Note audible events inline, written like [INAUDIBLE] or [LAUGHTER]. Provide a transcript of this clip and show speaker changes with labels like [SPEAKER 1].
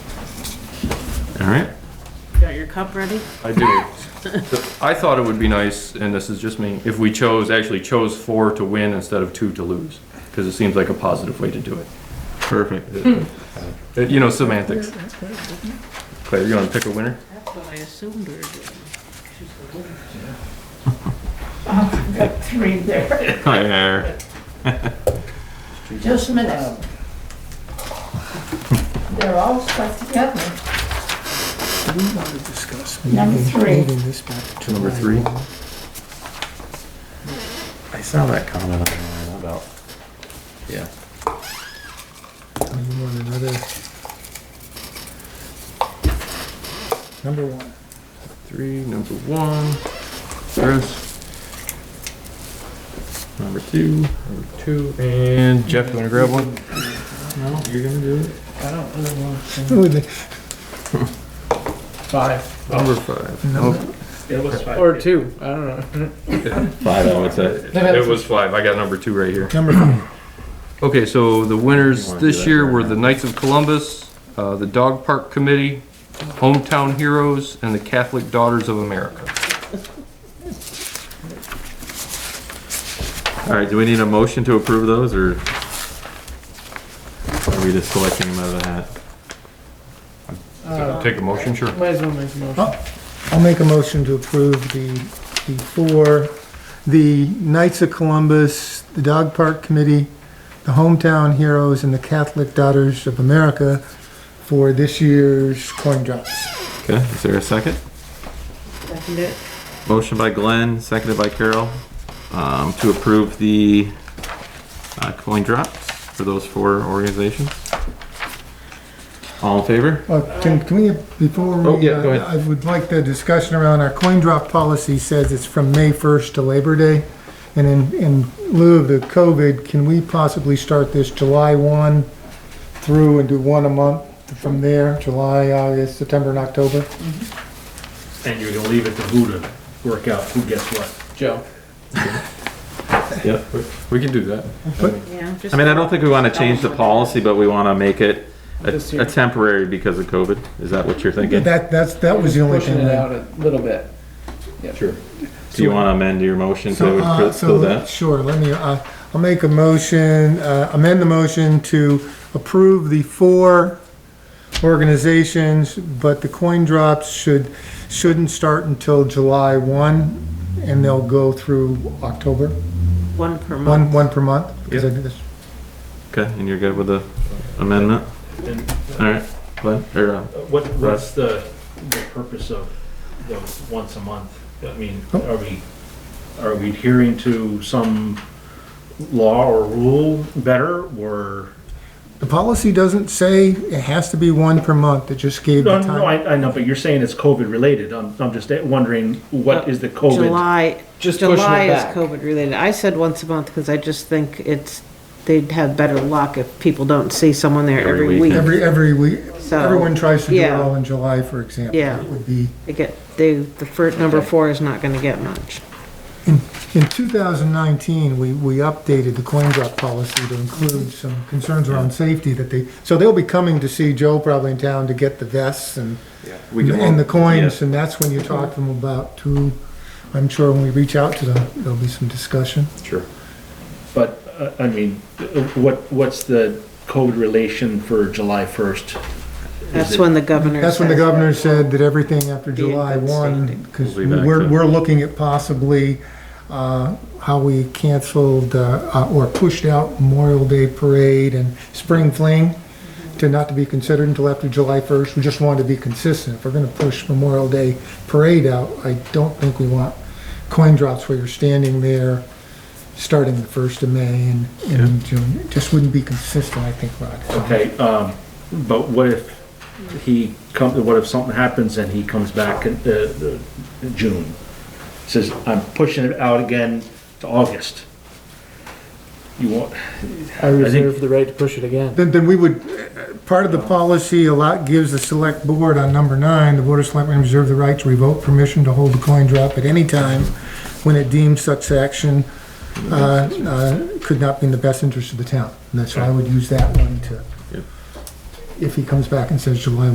[SPEAKER 1] All right.
[SPEAKER 2] Got your cup ready?
[SPEAKER 1] I do. I thought it would be nice, and this is just me, if we chose, actually chose four to win instead of two to lose, because it seems like a positive way to do it.
[SPEAKER 3] Perfect.
[SPEAKER 1] Uh, You know, semantics. Claire, you want to pick a winner?
[SPEAKER 2] That's what I assumed we were doing.
[SPEAKER 4] I've got three there.
[SPEAKER 3] Hi there.
[SPEAKER 4] Just a
[SPEAKER 5] Um.
[SPEAKER 4] minute. They're all stuck together.
[SPEAKER 5] We want to discuss.
[SPEAKER 4] Number
[SPEAKER 5] moving-
[SPEAKER 4] three.
[SPEAKER 5] Moving this back to
[SPEAKER 1] Number
[SPEAKER 5] July.
[SPEAKER 1] three?
[SPEAKER 5] Mm-hmm.
[SPEAKER 3] I saw that comment online about. Yeah.
[SPEAKER 5] Do You want another? Number one.
[SPEAKER 1] Three, number one. Chris. Number two. Number two. And Jeff, you want to grab one?
[SPEAKER 5] No,
[SPEAKER 1] You're going to do it?
[SPEAKER 4] I don't really want to.
[SPEAKER 5] Oh, the-
[SPEAKER 6] Five.
[SPEAKER 1] Number five.
[SPEAKER 5] no.
[SPEAKER 6] It was five. Or two. I don't know.
[SPEAKER 3] Five, I would say.
[SPEAKER 1] It was five. I got number two right here.
[SPEAKER 5] Number five.
[SPEAKER 1] [CLEARS THROAT] Okay, so the
[SPEAKER 3] You
[SPEAKER 1] winners
[SPEAKER 3] wanna do
[SPEAKER 1] this
[SPEAKER 3] that
[SPEAKER 1] year
[SPEAKER 3] right
[SPEAKER 1] were
[SPEAKER 3] now?
[SPEAKER 1] the Knights of Columbus, uh, the Dog Park Committee, Hometown Heroes, and the Catholic Daughters of America.
[SPEAKER 3] All right, do we need a motion to approve those or are we just selecting them out of the hat?
[SPEAKER 1] Take a motion, sure.
[SPEAKER 6] Might as well make a motion.
[SPEAKER 5] Oh, I'll make a motion to approve the, the four, the Knights of Columbus, the Dog Park Committee, the Hometown Heroes, and the Catholic Daughters of America for this year's coin drops.
[SPEAKER 3] Okay, is there a second?
[SPEAKER 2] Second it.
[SPEAKER 3] Motion by Glenn, seconded by Carol, um, to approve the, uh, coin drops for those four organizations. All in favor?
[SPEAKER 5] Uh, can, can we, before we...
[SPEAKER 3] Oh, yeah, go ahead.
[SPEAKER 5] uh, I would like the discussion around our coin drop policy says it's from May 1st to Labor Day. And in, in lieu of the COVID, can we possibly start this July 1 through and do one a month from there, July, August, September, and October?
[SPEAKER 7] And you're gonna leave it to who to work out who gets what.
[SPEAKER 6] Joe.
[SPEAKER 3] Yep.
[SPEAKER 1] We can do that.
[SPEAKER 2] Yeah, just.
[SPEAKER 3] I mean, I don't think we want to change the policy, but we want to make it a
[SPEAKER 6] This year.
[SPEAKER 3] a temporary because of COVID. Is that what you're thinking?
[SPEAKER 5] That, that's, that was the only
[SPEAKER 6] Pushing
[SPEAKER 5] thing.
[SPEAKER 6] it
[SPEAKER 5] that-
[SPEAKER 6] out a little bit.
[SPEAKER 3] Sure. Do you want to amend your motion
[SPEAKER 5] So,
[SPEAKER 3] to
[SPEAKER 5] uh,
[SPEAKER 3] fill
[SPEAKER 5] so,
[SPEAKER 3] that?
[SPEAKER 5] sure, let me, uh, I'll make a motion, uh, amend the motion to approve the four organizations, but the coin drops should, shouldn't start until July one, and they'll go through October,
[SPEAKER 2] One per month.
[SPEAKER 5] one, one per month. because I did this.
[SPEAKER 3] Okay, and you're good with the amendment?
[SPEAKER 7] And uh,
[SPEAKER 3] All right, Glenn, or, uh,
[SPEAKER 7] what, what's the, the purpose of the once a month? I mean, are we, are we adhering to some law or rule better or?
[SPEAKER 5] The policy doesn't say it has to be one per month, it just gave
[SPEAKER 7] No,
[SPEAKER 5] the
[SPEAKER 7] no,
[SPEAKER 5] time.
[SPEAKER 7] I, I know, but you're saying it's COVID related. I'm, I'm just wondering, what is the COVID?
[SPEAKER 2] July,
[SPEAKER 6] Just pushing it
[SPEAKER 2] July is
[SPEAKER 6] back.
[SPEAKER 2] COVID related. I said once a month because I just think it's, they'd have better luck if people don't see someone there
[SPEAKER 3] Every
[SPEAKER 2] every
[SPEAKER 3] weekend.
[SPEAKER 2] week.
[SPEAKER 5] Every, every week,
[SPEAKER 2] So,
[SPEAKER 5] everyone tries to do it
[SPEAKER 2] yeah.
[SPEAKER 5] all in July, for example.
[SPEAKER 2] Yeah.
[SPEAKER 5] It would be.
[SPEAKER 2] They get, they, the first, number four is not gonna get much.
[SPEAKER 5] In 2019, we, we updated the coin drop policy to include some concerns around safety that they, so they'll be coming to see Joe probably in town to get the vests and,
[SPEAKER 3] we can
[SPEAKER 5] and the coins,
[SPEAKER 3] yeah.
[SPEAKER 5] and that's when you talk to them about too. I'm sure when we reach out to them, there'll be some discussion.
[SPEAKER 3] Sure.
[SPEAKER 7] But, uh, I mean, uh, what, what's the COVID relation for July first?
[SPEAKER 2] That's when the governor.
[SPEAKER 5] That's when the
[SPEAKER 2] says-
[SPEAKER 5] governor said that everything after
[SPEAKER 2] Be in
[SPEAKER 5] July
[SPEAKER 2] good
[SPEAKER 5] one,
[SPEAKER 2] standing.
[SPEAKER 5] because
[SPEAKER 3] We'll be back
[SPEAKER 5] we're,
[SPEAKER 3] to-
[SPEAKER 5] we're looking at possibly, uh, how we canceled, uh, uh, or pushed out Memorial Day Parade and Spring Fling to not to be considered until after July first. We just wanted to be consistent. If we're gonna push Memorial Day Parade out, I don't think we want coin drops where you're standing there, starting the first of May and, and June. It just wouldn't be consistent, I think, Rod.
[SPEAKER 7] Okay, um, but what if he comes, what if something happens and he comes back in, uh, uh, June? Says, I'm pushing it out again to August. You want,
[SPEAKER 6] I reserve the right to push it again.
[SPEAKER 5] Then, then we would, uh, part of the policy a lot gives the select board on number nine, the board of selectmen reserve the right to revoke permission to hold a coin drop at any time when it deems such action, uh, uh, could not be in the best interest of the town. And that's why I would use that one to,
[SPEAKER 3] Yep.
[SPEAKER 5] if he comes back and says July